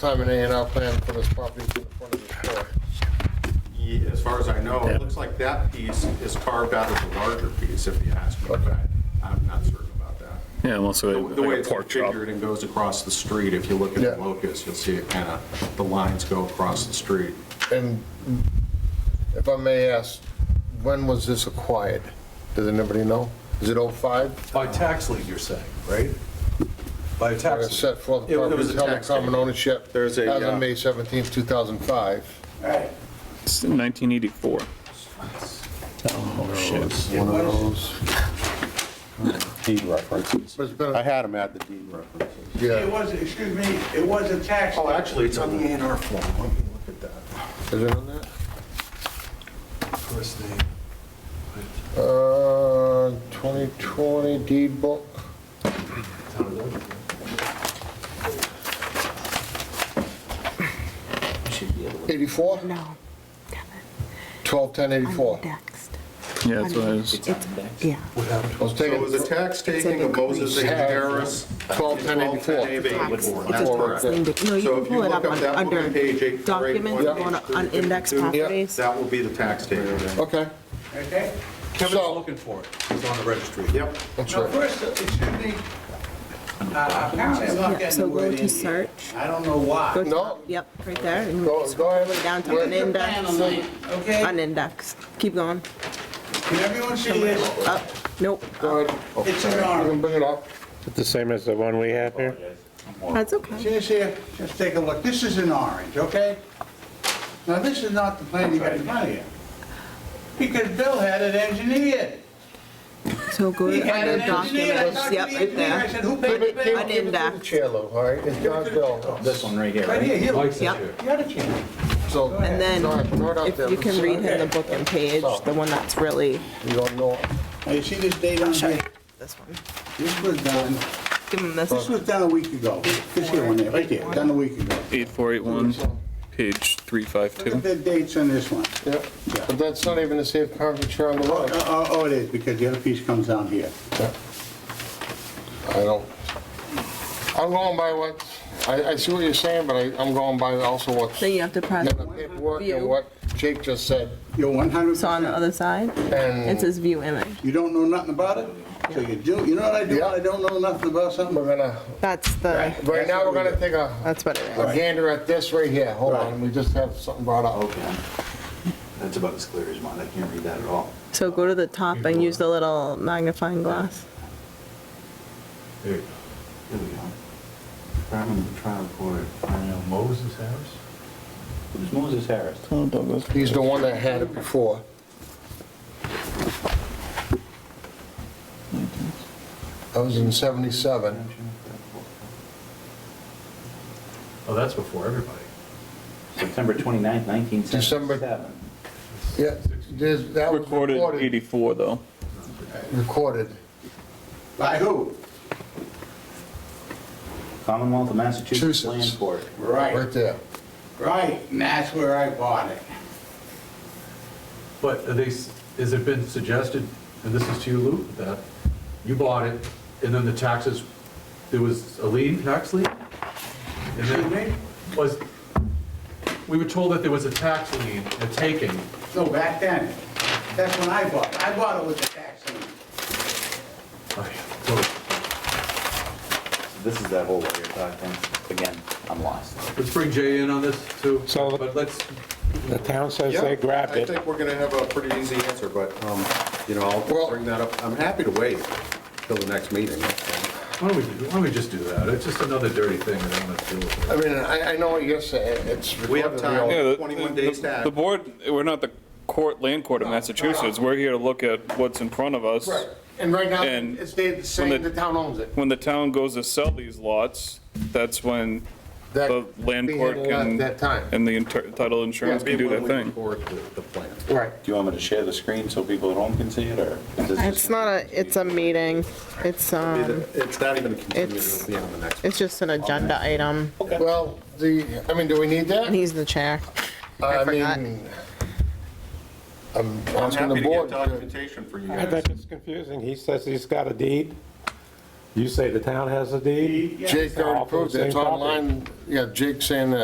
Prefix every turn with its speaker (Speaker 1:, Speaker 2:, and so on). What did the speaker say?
Speaker 1: time an A and R plan for this property in front of the store.
Speaker 2: Ye- As far as I know, it looks like that piece is carved out of the larger piece, if you ask me, but I'm not certain about that.
Speaker 3: Yeah, well, so
Speaker 2: The way
Speaker 3: like a
Speaker 2: it's
Speaker 3: pork chop.
Speaker 2: configured and goes across the street, if you look at the
Speaker 1: Yeah.
Speaker 2: locus, you'll see it kind of, the lines go across the street.
Speaker 1: And if I may ask, when was this acquired? Does anybody know? Is it '05?
Speaker 4: By tax lien, you're saying, right? By tax. lien.
Speaker 1: Set forth
Speaker 4: It- it was
Speaker 1: property
Speaker 4: a
Speaker 1: held in
Speaker 2: tax deed.
Speaker 1: common ownership
Speaker 2: There's
Speaker 1: as
Speaker 2: a, uh,
Speaker 1: of May 17, 2005.
Speaker 3: It's in 1984.
Speaker 5: One of those deed references.
Speaker 1: But it's been,
Speaker 5: I
Speaker 1: a-
Speaker 5: had them at the deed references.
Speaker 1: yeah,
Speaker 6: It was, excuse me, it was a tax.
Speaker 2: Oh, actually, it's on the A and R form. Let me look at that.
Speaker 1: is it on that?
Speaker 4: First name.
Speaker 1: Uh, 2020 deed book.
Speaker 7: Should be able to.
Speaker 1: 84?
Speaker 7: No, damn it.
Speaker 1: 121084.
Speaker 7: I'm Next.
Speaker 3: Yeah, that's what it is.
Speaker 7: It's, yeah.
Speaker 4: What happened?
Speaker 1: I was
Speaker 2: So it was a
Speaker 1: taking
Speaker 2: tax taking of Moses A. Harris.
Speaker 1: 121084.
Speaker 7: It's
Speaker 2: That's
Speaker 7: a
Speaker 2: correct.
Speaker 7: tax lien. No, you
Speaker 2: So
Speaker 7: can
Speaker 2: if you
Speaker 7: pull it
Speaker 2: look
Speaker 7: up
Speaker 2: up
Speaker 7: on-
Speaker 2: that one on page
Speaker 7: under
Speaker 2: 8,
Speaker 7: documents,
Speaker 2: grade one,
Speaker 7: on,
Speaker 2: page
Speaker 7: on
Speaker 2: two,
Speaker 7: index
Speaker 2: fifty-two.
Speaker 7: properties.
Speaker 2: That will be the tax taking.
Speaker 1: Okay,
Speaker 6: Okay?
Speaker 4: Kevin's
Speaker 1: So-
Speaker 4: looking for it. It's on the registry.
Speaker 2: Yep.
Speaker 1: that's
Speaker 6: Now,
Speaker 1: right.
Speaker 6: first, excuse me, uh, apparently I'm
Speaker 7: Yeah,
Speaker 6: not getting
Speaker 7: so
Speaker 6: the
Speaker 7: go
Speaker 6: word
Speaker 7: to
Speaker 6: in here.
Speaker 7: search.
Speaker 6: I don't know why.
Speaker 7: Go to-
Speaker 1: No.
Speaker 7: Yep, right there. and
Speaker 1: Go-
Speaker 7: scroll
Speaker 1: go
Speaker 7: all
Speaker 1: ahead.
Speaker 7: the way Down to
Speaker 1: Where-
Speaker 7: an index,
Speaker 6: Okay?
Speaker 7: an index. Keep going.
Speaker 6: Can everyone see this?
Speaker 7: Up, nope.
Speaker 1: Go ahead.
Speaker 6: It's an
Speaker 1: You
Speaker 6: R.
Speaker 1: can bring it up.
Speaker 8: The same as the one we have here?
Speaker 7: That's okay.
Speaker 6: See this here? Just take a look. This is an orange, okay? Now, this is not the plan you got in front of you. Because Bill had it engineered.
Speaker 7: So go
Speaker 6: He
Speaker 7: to
Speaker 6: had
Speaker 7: under
Speaker 6: it engineered. I talked
Speaker 7: documents.
Speaker 6: to the
Speaker 7: Yep, right
Speaker 6: engineer. I
Speaker 7: there.
Speaker 6: said, who
Speaker 1: Give
Speaker 6: paid the
Speaker 1: it- give
Speaker 6: bill?
Speaker 1: it- give it to the chair, Lou, all right? It's God's bill.
Speaker 6: This one right here, right? here, here.
Speaker 4: Mike's
Speaker 7: Yep.
Speaker 4: here.
Speaker 6: You had a chance.
Speaker 1: So.
Speaker 7: And then
Speaker 1: Sorry, throw it out
Speaker 7: if
Speaker 1: there.
Speaker 7: you can read him the book and page, the one that's really,
Speaker 1: You don't know.
Speaker 6: Now, you see this date on here?
Speaker 7: this one.
Speaker 6: This was done,
Speaker 7: Give him this.
Speaker 6: this was done a week ago. This here one, there, right there, done a week ago.
Speaker 3: 8481, page
Speaker 6: Look at
Speaker 3: 352.
Speaker 6: the dates on this one.
Speaker 1: Yeah, but that's not even the safe parking chair on the
Speaker 6: Oh,
Speaker 1: road.
Speaker 6: oh, oh, it is, because the other piece comes down here.
Speaker 1: I don't, I'm going by what, I, I see what you're saying, but I, I'm going by also what's
Speaker 7: Then
Speaker 1: in
Speaker 7: you have to press,
Speaker 1: the paperwork and what Jake just said.
Speaker 6: You're one hundred
Speaker 7: so on the
Speaker 6: percent.
Speaker 7: other side, it
Speaker 1: And
Speaker 7: says view image.
Speaker 6: You don't know nothing about it? So you do, you know what I do, when I don't know nothing about something?
Speaker 1: we're gonna,
Speaker 7: That's the,
Speaker 1: right now, we're gonna take a
Speaker 7: that's what it is.
Speaker 1: a gander at this right here. Hold on, we just have something brought up.
Speaker 9: Okay. That's about as clear as mine. I can't read that at all.
Speaker 7: So go to the top and use the little magnifying glass.
Speaker 9: There you go. There we go. Department of Trial Court. Moses Harris? Who's Moses Harris?
Speaker 1: Oh, He's the one that had it before. That was in 77.
Speaker 8: Oh, that's before everybody.
Speaker 9: September 29th, 1977.
Speaker 1: December- Yeah, there's, that was
Speaker 3: Recorded
Speaker 1: recorded,
Speaker 3: 84, though.
Speaker 1: recorded.
Speaker 6: By who?
Speaker 9: Commonwealth of Massachusetts
Speaker 1: Massachusetts.
Speaker 9: Land Court.
Speaker 6: Right,
Speaker 1: Right there.
Speaker 6: right, and that's where I bought it.
Speaker 4: But are they, s- has it been suggested, and this is to you, Lou, that you bought it, and then the taxes, there was a lien, tax lien? And then was, we were told that there was a tax lien, a taking.
Speaker 6: So back then, that's when I bought it. I bought it with the tax lien.
Speaker 4: Oh, yeah. So,
Speaker 9: This is that whole lawyer talk thing. Again, I'm lost.
Speaker 4: Let's bring Jay in on this too.
Speaker 8: So-
Speaker 4: But let's,
Speaker 8: The town says
Speaker 2: Yeah,
Speaker 8: they grabbed
Speaker 2: I
Speaker 8: it.
Speaker 2: think we're gonna have a pretty easy answer, but, um, you know, I'll
Speaker 1: Well-
Speaker 2: bring that up. I'm happy to wait till the next meeting.
Speaker 4: why don't we, why don't we just do that? It's just another dirty thing that I'm gonna deal with.
Speaker 1: I mean, I, I know what you're saying, it's recorded.
Speaker 2: We have time.
Speaker 1: you know.
Speaker 2: Yeah,
Speaker 3: the-
Speaker 2: 21
Speaker 3: the-
Speaker 2: days
Speaker 3: the-
Speaker 2: back.
Speaker 3: The board, we're not the court, land court of Massachusetts. We're here to look at what's in front of us.
Speaker 1: Right, and right now,
Speaker 3: And
Speaker 1: it's they- saying the town owns it.
Speaker 3: When the town goes to sell these lots, that's when
Speaker 1: That
Speaker 3: the land
Speaker 1: we
Speaker 3: court
Speaker 1: handled at
Speaker 3: can,
Speaker 1: that time.
Speaker 3: and the inter- title insurance can do their thing.
Speaker 2: The plan.
Speaker 1: Right.
Speaker 9: Do you want me to share the screen so people at home can see it, or? is this
Speaker 7: It's
Speaker 9: just-
Speaker 7: not a, it's a meeting. It's, um,
Speaker 2: It's not even a continued,
Speaker 7: It's-
Speaker 2: it'll be on the next.
Speaker 7: it's just an agenda item.
Speaker 1: Well, the, I mean, do we need that?
Speaker 7: And he's the chair.
Speaker 1: I
Speaker 7: forgot.
Speaker 1: mean, I'm
Speaker 2: I'm
Speaker 1: asking
Speaker 2: happy
Speaker 1: the
Speaker 2: to get
Speaker 1: board. to-
Speaker 2: documentation for you
Speaker 8: I
Speaker 2: guys.
Speaker 8: think it's confusing. He says he's got a deed. You say the town has a deed?
Speaker 1: Jake
Speaker 8: All
Speaker 1: already
Speaker 8: for the
Speaker 1: proved it, it's
Speaker 8: same property.
Speaker 1: online, yeah, Jake's saying that